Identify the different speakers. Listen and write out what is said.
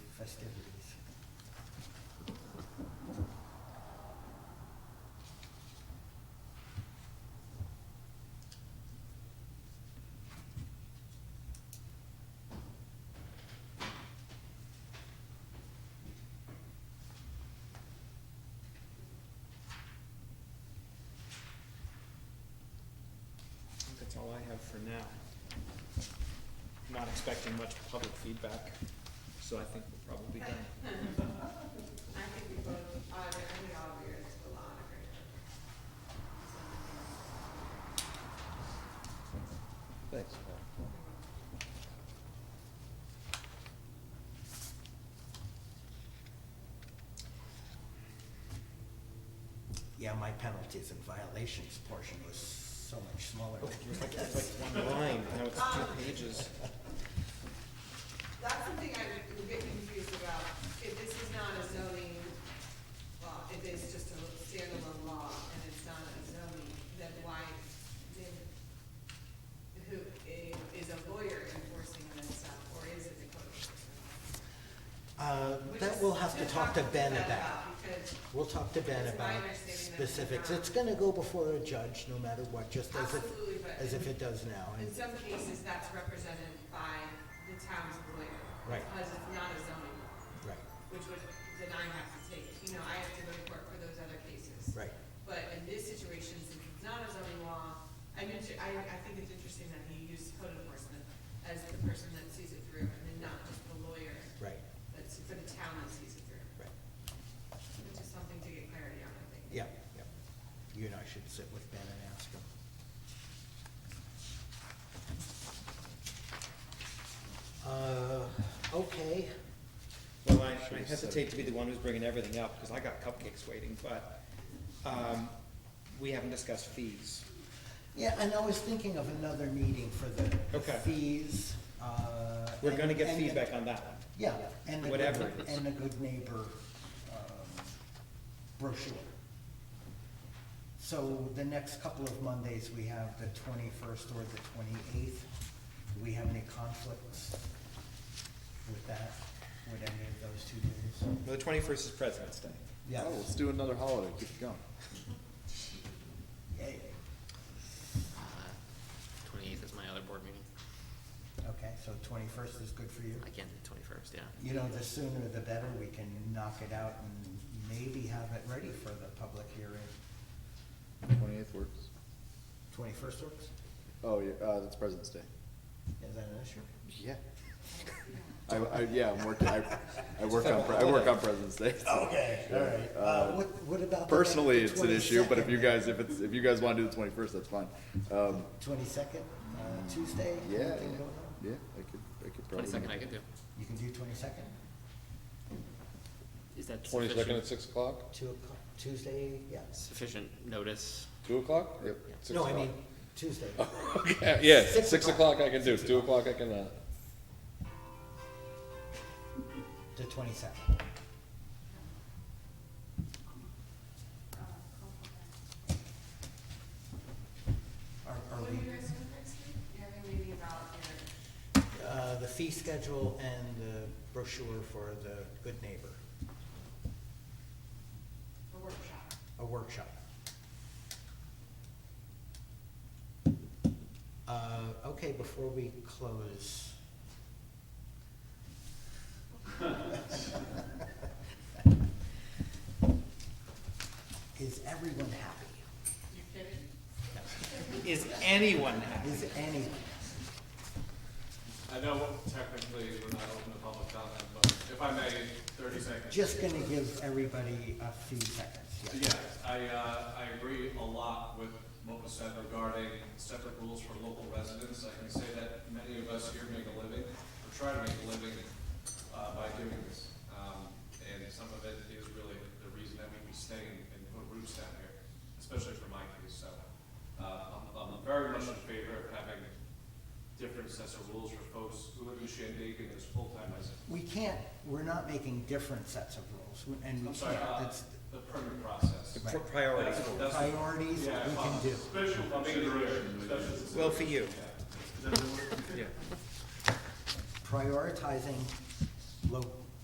Speaker 1: festivities.
Speaker 2: I think that's all I have for now. I'm Not expecting much public feedback, so I think we're probably done.
Speaker 3: I think we both, auditor, I think all of yours will auditor.
Speaker 1: Thanks. Yeah, my penalties and violations portion was so much smaller.
Speaker 2: It was like, it was like one line, now it's two pages.
Speaker 3: That's something I would get confused about, if this is not a zoning law, if it's just a standalone law and it's not a zoning, then why, then who, i- is a lawyer enforcing this stuff, or is it the code enforcement?
Speaker 1: Uh,
Speaker 3: Which
Speaker 1: That
Speaker 3: is-
Speaker 1: we'll have to talk to Ben about.
Speaker 3: Because
Speaker 1: We'll talk to Ben
Speaker 3: It's my
Speaker 1: about
Speaker 3: understanding that we're
Speaker 1: specifics.
Speaker 3: not-
Speaker 1: It's gonna go before a judge, no matter what, just as if,
Speaker 3: absolutely, but.
Speaker 1: as if it does now.
Speaker 3: In
Speaker 1: And
Speaker 3: some cases, that's represented by the town's lawyer.
Speaker 1: Right.
Speaker 3: Because it's not a zoning law,
Speaker 1: Right,
Speaker 3: which would, then I have to take, you know, I have to go to court for those other cases.
Speaker 1: right.
Speaker 3: But in this situation, since it's not a zoning law, I mean, I, I think it's interesting that he used code enforcement as the person that sees it through, and then not just the lawyer
Speaker 1: Right,
Speaker 3: that's for the town that sees it through,
Speaker 1: right,
Speaker 3: which is something to get clarity on, I think.
Speaker 1: yeah, yeah. You and I should sit with Ben and ask him. Uh, okay,
Speaker 2: Well, I I hesitate to be the one who's bringing everything up, because I got cupcakes waiting, but, um, we haven't discussed fees.
Speaker 1: yeah, and I was thinking of another meeting for the
Speaker 2: Okay.
Speaker 1: fees, uh.
Speaker 2: We're
Speaker 1: and-
Speaker 2: gonna get
Speaker 1: and-
Speaker 2: feedback on that one.
Speaker 1: Yeah, and the
Speaker 2: Whatever
Speaker 1: good,
Speaker 2: it is.
Speaker 1: and the good neighbor um, brochure. So the next couple of Mondays, we have the twenty-first or the twenty-eighth. Do we have any conflicts with that, with any of those two days?
Speaker 2: Well, The twenty-first is President's Day.
Speaker 1: Yeah,
Speaker 4: Oh, let's do another holiday, keep it going.
Speaker 1: yeah,
Speaker 5: Uh, Twenty-eighth is my other board meeting.
Speaker 1: okay, so twenty-first is good for you?
Speaker 5: I can't do twenty-first, yeah.
Speaker 1: You know, the sooner the better, we can knock it out and maybe have it ready for the public hearing.
Speaker 4: Twenty-eighth works.
Speaker 1: Twenty-first works?
Speaker 4: Oh, yeah, uh, that's President's Day.
Speaker 1: Is that an issue?
Speaker 4: Yeah. I, I, yeah, I'm working, I, I work on, pre- I work on President's Day.
Speaker 1: Okay, all right. Uh, what, what about? the-
Speaker 4: Personally,
Speaker 1: the
Speaker 4: it's an issue, but if you guys, if it's, if you guys wanna do the twenty-first, that's fine. Um,
Speaker 1: Twenty-second, uh, Tuesday?
Speaker 4: yeah, yeah,
Speaker 1: anything going on?
Speaker 4: yeah, I could, I could probably.
Speaker 5: Twenty-second I could do.
Speaker 1: You can do twenty-second,
Speaker 5: Is that
Speaker 6: Twenty-second at
Speaker 5: sufficient,
Speaker 6: six o'clock,
Speaker 1: two o'clock, Tuesday, yes.
Speaker 5: sufficient notice?
Speaker 6: two o'clock?
Speaker 4: Yep.
Speaker 6: Six
Speaker 1: No, I
Speaker 6: o'clock.
Speaker 1: mean, Tuesday.
Speaker 6: Yeah, yeah,
Speaker 1: six
Speaker 6: six
Speaker 1: o'clock.
Speaker 6: o'clock I can do, two o'clock I cannot.
Speaker 1: The twenty-second. Are, are
Speaker 3: What do you
Speaker 1: we,
Speaker 3: guys think next week? You have a meeting about your,
Speaker 1: uh, the fee schedule and the brochure for the Good Neighbor,
Speaker 3: a workshop.
Speaker 1: a workshop. Uh, okay, before we close, Is everyone happy?
Speaker 3: You kidding?
Speaker 2: Is anyone happy?
Speaker 1: Is anyone?
Speaker 7: I know technically we're not open to public comment, but if I may, thirty seconds.
Speaker 1: Just gonna give everybody a few seconds, yeah.
Speaker 7: Yes, I, uh, I agree a lot with what was said regarding separate rules for local residents. I can say that many of us here make a living, or try to make a living, uh, by doing this. Um, and some of it is really the reason that we stay and put roots down here, especially for my case, so. Uh, I'm, I'm very much in favor of having different sets of rules for folks who live in Shandaken as full-time residents.
Speaker 1: We can't, we're not making different sets of rules, and we
Speaker 7: I'm sorry,
Speaker 1: can't,
Speaker 7: uh,
Speaker 1: that's
Speaker 7: the permit process.
Speaker 2: Pri- Priorities.
Speaker 7: That's- that's-
Speaker 1: priorities
Speaker 7: yeah,
Speaker 1: we can
Speaker 7: uh,
Speaker 1: do.
Speaker 7: Special consideration, special consideration.
Speaker 2: Well, for you.
Speaker 7: Yeah. Is that the word?
Speaker 2: Yeah.
Speaker 1: Prioritizing lo-